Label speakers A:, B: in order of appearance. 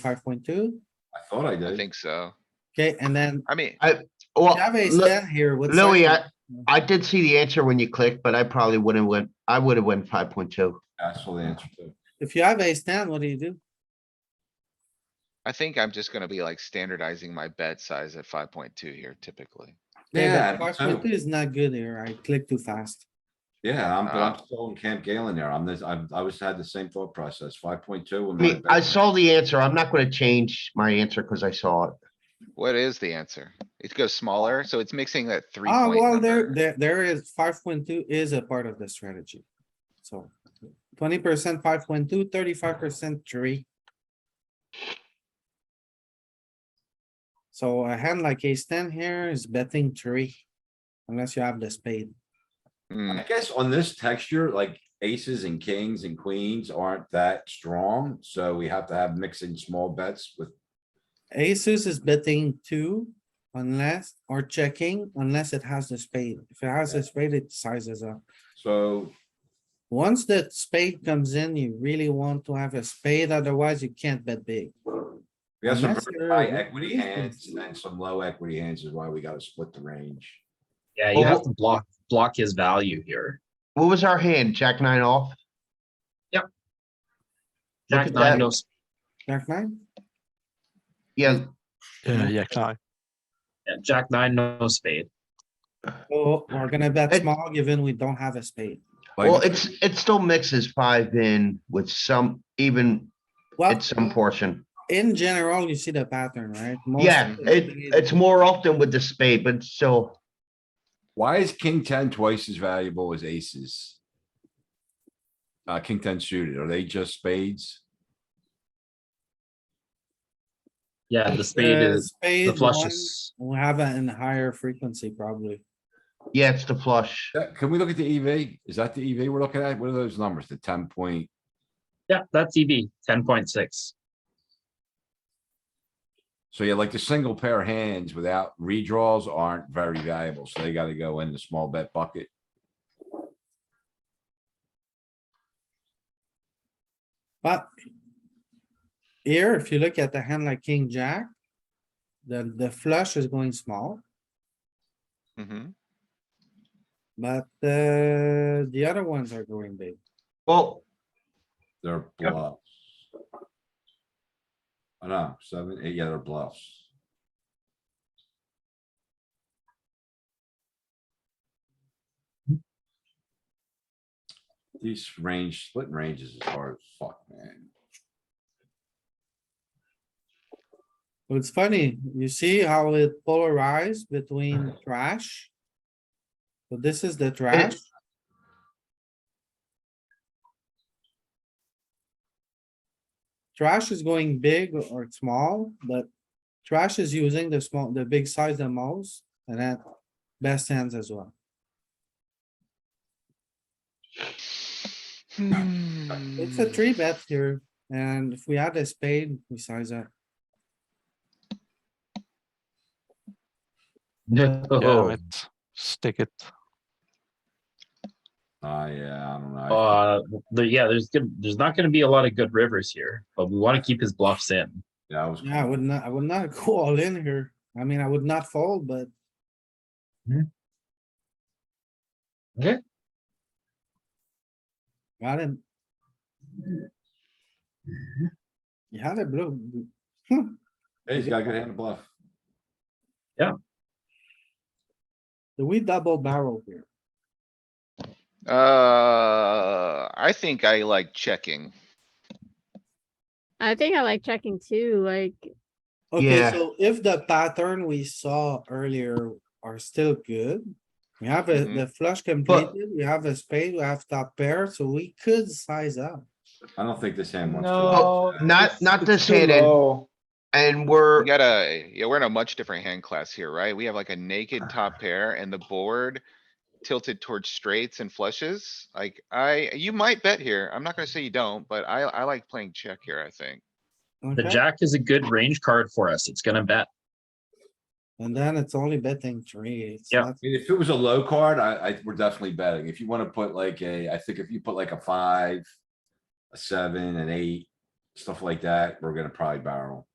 A: Five point two,
B: I thought I
C: I
B: did.
C: think so.
A: okay, and then
C: I mean,
A: we
D: Well,
A: have ace
D: Lu-
A: ten here with.
D: Louis, I,
A: second.
D: I did see the answer when you clicked, but I probably wouldn't went, I would have went five point two.
B: I saw the answer too.
A: If you have ace ten, what do you do?
C: I think I'm just gonna be like standardizing my bet size at five point two here typically.
A: Okay, but
B: Yeah, I
A: Five
B: don't
A: point
B: know.
A: two is not good here. I click too fast.
B: yeah, I'm, but
C: Uh.
B: I'm still in Camp Galen there. I'm this, I, I was had the same thought process, five point two.
D: I mean, I saw the answer. I'm not gonna change my answer because I saw it.
C: What is the answer? It goes smaller, so it's mixing that three
A: Ah,
C: point
A: well, there,
C: number.
A: there, there is, five point two is a part of the strategy. So twenty percent, five point two, thirty-five percent, three. So a hand like ace ten here is betting three, unless you have the spade.
C: Mm,
B: I guess on this texture, like aces and kings and queens aren't that strong, so we have to have mixing small bets with.
A: Aces is betting two unless, or checking unless it has the spade. If it has a spade, it sizes up.
B: So
A: Once the spade comes in, you really want to have a spade, otherwise you can't bet big.
B: we have some
A: Unless
B: very
A: you're-
B: high equity
A: Yes,
B: hands
A: yes.
B: and then some low equity hands is why we gotta split the range.
E: Yeah,
D: Oh,
E: you have
D: wh-
E: to block, block his value here.
D: What was our hand? Jack nine off? Look
E: Jack
D: at
E: nine,
D: that.
E: no, s-
A: Jack nine?
D: Yeah,
F: Yeah, yeah, can I?
E: yeah, Jack nine, no spade.
A: Oh, we're gonna bet
D: It-
A: small given we don't have a spade.
D: well,
B: Like,
D: it's, it still mixes five in with some, even
A: Well,
D: at some portion.
A: in general, you see the pattern, right? Most
D: Yeah,
A: of the uh,
D: it,
A: spade-
D: it's more often with the spade, but it's still,
B: why is king ten twice as valuable as aces? Uh, king ten suited, are they just spades?
E: Yeah, the spade
A: Uh,
E: is, the
A: spade
E: flush
A: one,
E: is,
A: We have it in higher frequency probably.
D: yeah, it's the flush.
B: Yeah, Can we look at the EV? Is that the EV we're looking at? What are those numbers? The ten point?
E: yeah, that's EV, ten point six.
B: So yeah, like the single pair hands without redraws aren't very valuable, so they gotta go in the small bet bucket.
A: But here, if you look at the hand like king, jack, the, the flush is going small,
C: mhm.
A: but, uh, the other ones are going big.
D: Well,
B: They're
E: Yep.
B: bluffs. I know, seven, eight, yeah, they're bluffs. These range, splitting ranges is hard, as fuck, man.
A: Well, It's funny, you see how it polarized between trash? So this is the trash. Trash is going big or small, but trash is using the small, the big size the most, and that best hands as well. It's a
C: Hmm,
A: three bet here, and if we add a spade, we size up.
F: Yeah,
E: No,
F: let's stick it.
B: Ah, yeah, I don't know. I-
E: uh, the, yeah, there's good, there's not gonna be a lot of good rivers here, but we wanna keep his bluffs in.
B: Yeah, I was.
A: Yeah, I would not, I would not go all in here. I mean, I would not fold, but
E: Mhm. Okay.
A: Got him.
E: Mm-hmm.
A: You had a blue,
B: Hey, He's got a good hand of bluff.
A: do we double barrel here?
C: Uh, I think I like checking.
G: I think I like checking too, like,
A: Okay,
D: Yeah.
A: so if the pattern we saw earlier are still good. We have a,
C: Mhm.
A: the flush completed, we have a spade, we have top pair, so we could size up.
B: I don't think this hand wants. to.
D: No, not, not this hand, and-
H: Oh,
D: and
C: We
A: Er
D: we're,
C: got a, yeah, we're in a much different hand class here, right? We have like a
A: Ah.
C: naked top pair and the board tilted towards straights and flushes. Like I, you might bet here. I'm not gonna say you don't, but I, I like playing check here, I think.
E: The
A: Okay,
E: jack is a good range card for us. It's gonna bet.
A: and then it's only betting three. it's
E: Yeah.
A: not-
B: I mean, if it was a low card, I, I, we're definitely betting. If you wanna put like a, I think if you put like a five, a seven, an eight, stuff like that, we're gonna probably barrel.